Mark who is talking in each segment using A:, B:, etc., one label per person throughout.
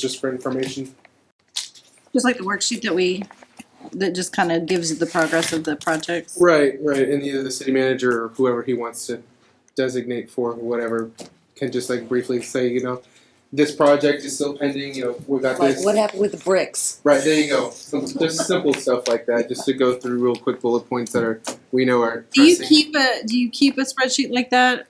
A: just for information.
B: Just like the worksheet that we, that just kind of gives the progress of the projects.
A: Right, right, and either the city manager or whoever he wants to designate for whatever can just like briefly say, you know, this project is still pending. You know, we got
C: Like,
A: this.
C: what happened with the bricks?
A: Right there, you go. Some, just simple stuff like that, just to go through real quick bullet points that are we know are.
B: Do you
A: pressing.
B: keep a, do you keep a spreadsheet like that?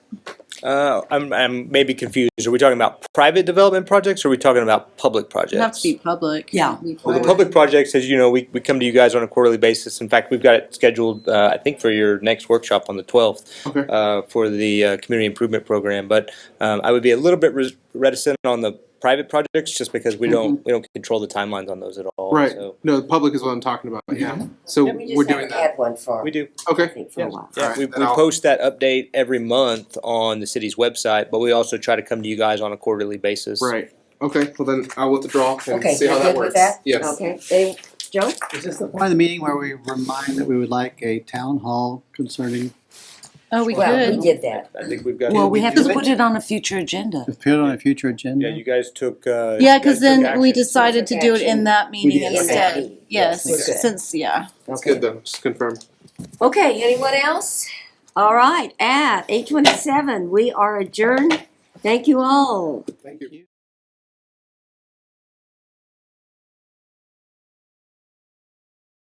D: Uh, I'm, I'm maybe confused. Are we talking about private development projects or are we talking about public projects?
B: It has to be public.
C: Yeah.
D: Well, the public projects, as you know, we, we come to you guys on a quarterly basis. In fact, we've got it scheduled, uh, I think, for your next workshop on the 12th
A: Okay.
D: uh, for the uh, community improvement program. But um, I would be a little bit res- reticent on the private projects just because we don't we don't control the timelines on those at all.
A: Right.
D: So
A: No, the public is what I'm talking about. Yeah. So
C: Then we Mm-hmm. just
A: we're
C: have
A: doing
C: to
A: that.
C: Add one for,
D: we do.
C: I
A: Okay.
C: think, for a while.
D: Yeah,
A: Alright,
D: we,
A: then
D: we
A: I'll-
D: post that update every month on the city's website, but we also try to come to you guys on a quarterly basis.
A: Right. Okay. Well, then I'll withdraw and
C: Okay,
A: see
C: you're
A: how
C: good
A: that
C: with
A: works.
C: that?
A: Yes.
C: Okay, They- Joe?
E: Is this the point of the meeting where we remind that we would like a town hall concerning,
B: Oh, we
C: Well,
B: could.
C: we did that.
D: I think we've got.
E: Well, we have to put
C: it on a future agenda.
E: if put on a future agenda?
D: Yeah, you guys took. Uh,
B: Yeah,
D: you guys
B: because then
D: took
B: we
D: action.
B: decided to do it in that meeting
E: did.
B: instead.
C: Okay.
B: Yes,
C: Yes, okay.
B: since, yeah.
A: That's good though. Just confirm.
C: Okay, anyone else? All right, at eight twenty-seven, we are adjourned. Thank you all.
A: Thank you.